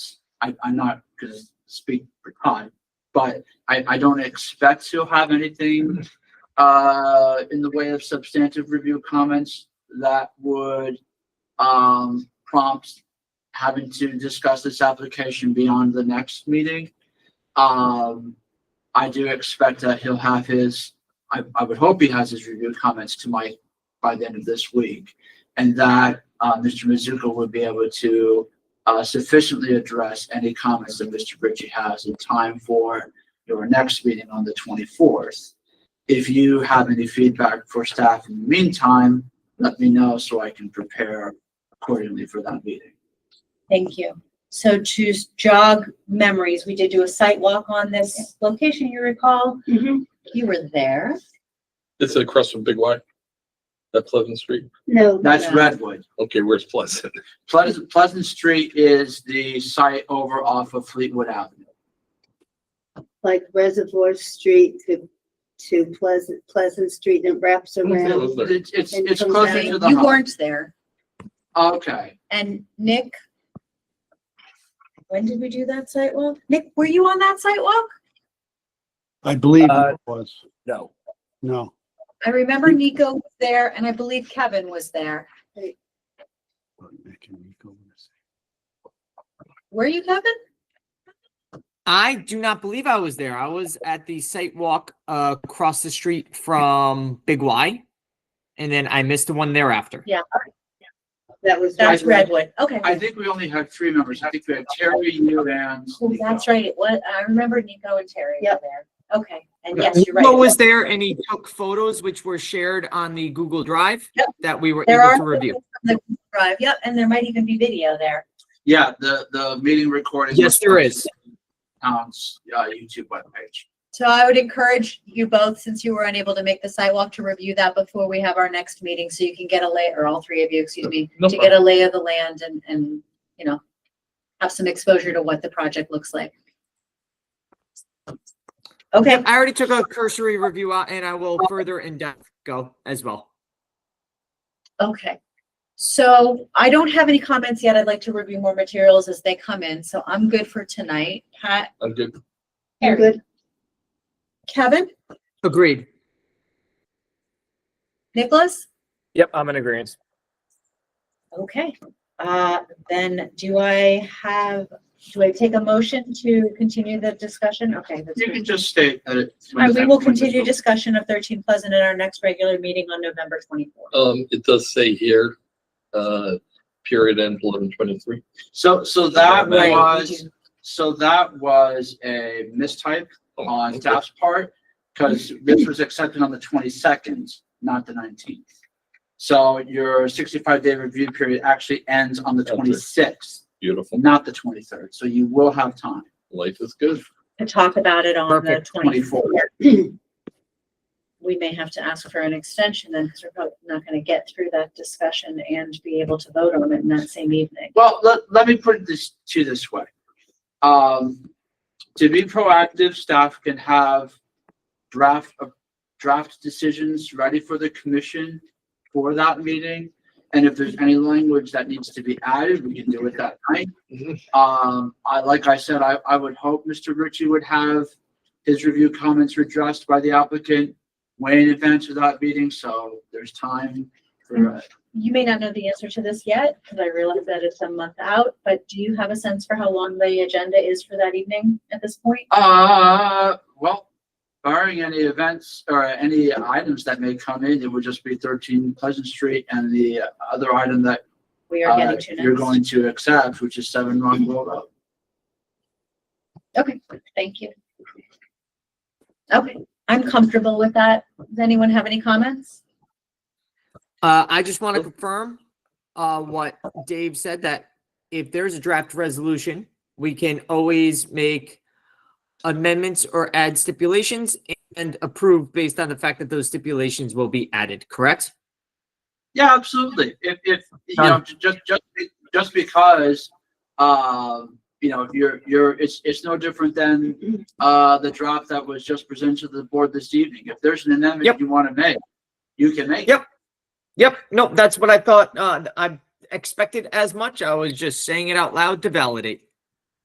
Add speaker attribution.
Speaker 1: I, I'm not gonna speak for Todd, but I, I don't expect he'll have anything uh, in the way of substantive review comments that would um, prompt having to discuss this application beyond the next meeting. Um, I do expect that he'll have his, I, I would hope he has his review comments to Mike by the end of this week. And that, uh, Mr. Mizuko would be able to, uh, sufficiently address any comments that Mr. Ritchie has in time for your next meeting on the twenty-fourth. If you have any feedback for staff in the meantime, let me know so I can prepare accordingly for that meeting.
Speaker 2: Thank you. So to jog memories, we did do a site walk on this location, you recall?
Speaker 3: Mhm.
Speaker 2: You were there.
Speaker 4: It's across from Big Y. That Pleasant Street.
Speaker 3: No,
Speaker 1: That's
Speaker 2: Yeah.
Speaker 1: Redwood.
Speaker 4: Okay, where's Pleasant?
Speaker 1: Pleasant, Pleasant Street is the site over off of Fleetwood Avenue.
Speaker 3: like Reservoir Street to, to Pleasant, Pleasant Street and it wraps around.
Speaker 4: was there.
Speaker 1: It's, it's,
Speaker 3: And
Speaker 1: it's
Speaker 3: comes
Speaker 1: closer
Speaker 3: out.
Speaker 1: to the
Speaker 2: You
Speaker 1: hub.
Speaker 2: weren't there.
Speaker 1: Okay.
Speaker 2: And Nick, when did we do that site walk? Nick, were you on that site walk?
Speaker 5: I believe
Speaker 6: Uh,
Speaker 5: it was.
Speaker 6: No.
Speaker 5: No,
Speaker 2: I remember Nico was there and I believe Kevin was there. Were you Kevin?
Speaker 7: I do not believe I was there. I was at the site walk uh, across the street from Big Y, and then I missed the one thereafter.
Speaker 3: That was.
Speaker 2: That's
Speaker 3: Redwood.
Speaker 2: Redwood. Okay.
Speaker 1: I think we only had three members. I think we had Terry, you and.
Speaker 2: Oh, That's right. It was, I remember Nico and Terry were
Speaker 3: Yep.
Speaker 2: there. Okay. And
Speaker 1: Okay.
Speaker 2: yes, you're right.
Speaker 7: Nico
Speaker 2: it
Speaker 7: was there, and he took photos which were shared on the Google Drive
Speaker 2: Yep.
Speaker 7: that we were
Speaker 2: There
Speaker 7: able
Speaker 2: are
Speaker 7: to review.
Speaker 2: The drive, yep, and there might even be video there.
Speaker 1: Yeah, the, the meeting recording.
Speaker 7: Yes, there is.
Speaker 1: Town's, uh, YouTube webpage.
Speaker 2: So I would encourage you both, since you were unable to make the sidewalk, to review that before we have our next meeting, so you can get a lay, or all three of you, excuse me,
Speaker 4: No
Speaker 2: to get a lay of the land and, and, you know, have some exposure to what the project looks like. Okay,
Speaker 7: I already took a cursory review out, and I will further in depth go as well.
Speaker 2: okay. So I don't have any comments yet. I'd like to review more materials as they come in, so I'm good for tonight. Pat,
Speaker 4: I'm good.
Speaker 3: You Good.
Speaker 2: Kevin,
Speaker 7: Agreed.
Speaker 2: Nicholas?
Speaker 6: Yep, I'm in agreement.
Speaker 2: Okay, uh, then do I have, do I take a motion to continue the discussion? Okay. that's
Speaker 1: You
Speaker 2: good.
Speaker 1: can just state that it.
Speaker 2: All right, we will continue discussion of thirteen Pleasant at our next regular meeting on November twenty-fourth.
Speaker 4: Um, it does say here, uh, period end eleven twenty-three.
Speaker 1: So, so that
Speaker 4: Right, we
Speaker 1: was, so that was a mistype
Speaker 4: Oh,
Speaker 1: on staff's part, because this was accepted on the twenty-second, not the nineteenth. So your sixty-five day review period actually ends on the
Speaker 4: Okay.
Speaker 1: twenty-sixth,
Speaker 4: Beautiful.
Speaker 1: not the twenty-third, so you will have time.
Speaker 4: Life is good.
Speaker 2: To talk about it on the
Speaker 7: Perfect.
Speaker 2: twenty-fourth.
Speaker 1: 24th.
Speaker 2: We may have to ask for an extension then, because we're probably not gonna get through that discussion and be able to vote on it in that same evening.
Speaker 1: Well, let, let me put this to you this way. Um, to be proactive, staff can have draft, uh, draft decisions ready for the commission for that meeting. And if there's any language that needs to be added, we can do it that night.
Speaker 4: Mhm.
Speaker 1: Um, I, like I said, I, I would hope Mr. Ritchie would have his review comments addressed by the applicant way in advance of that meeting, so there's time for, uh,
Speaker 2: You may not know the answer to this yet, because I realize that it's a month out, but do you have a sense for how long the agenda is for that evening at this point?
Speaker 1: Uh, well, barring any events or any items that may come in, it would just be thirteen Pleasant Street and the other item that
Speaker 2: We are
Speaker 1: uh,
Speaker 2: getting to next.
Speaker 1: you're going to accept, which is seven Run Road. Road.
Speaker 2: Okay, thank you. Okay, I'm comfortable with that. Does anyone have any comments?
Speaker 7: Uh, I just want to confirm, uh, what Dave said, that if there's a draft resolution, we can always make amendments or add stipulations and approve based on the fact that those stipulations will be added, correct?
Speaker 1: Yeah, absolutely. If, if, you know, ju- just, just, be- just because, um, you know, you're, you're, it's, it's no different than, uh, the draft that was just presented to the board this evening. If there's an amendment
Speaker 7: Yep.
Speaker 1: you want to make, you can make. it.
Speaker 7: Yep. Yep, no, that's what I thought, uh, I expected as much. I was just saying it out loud to validate.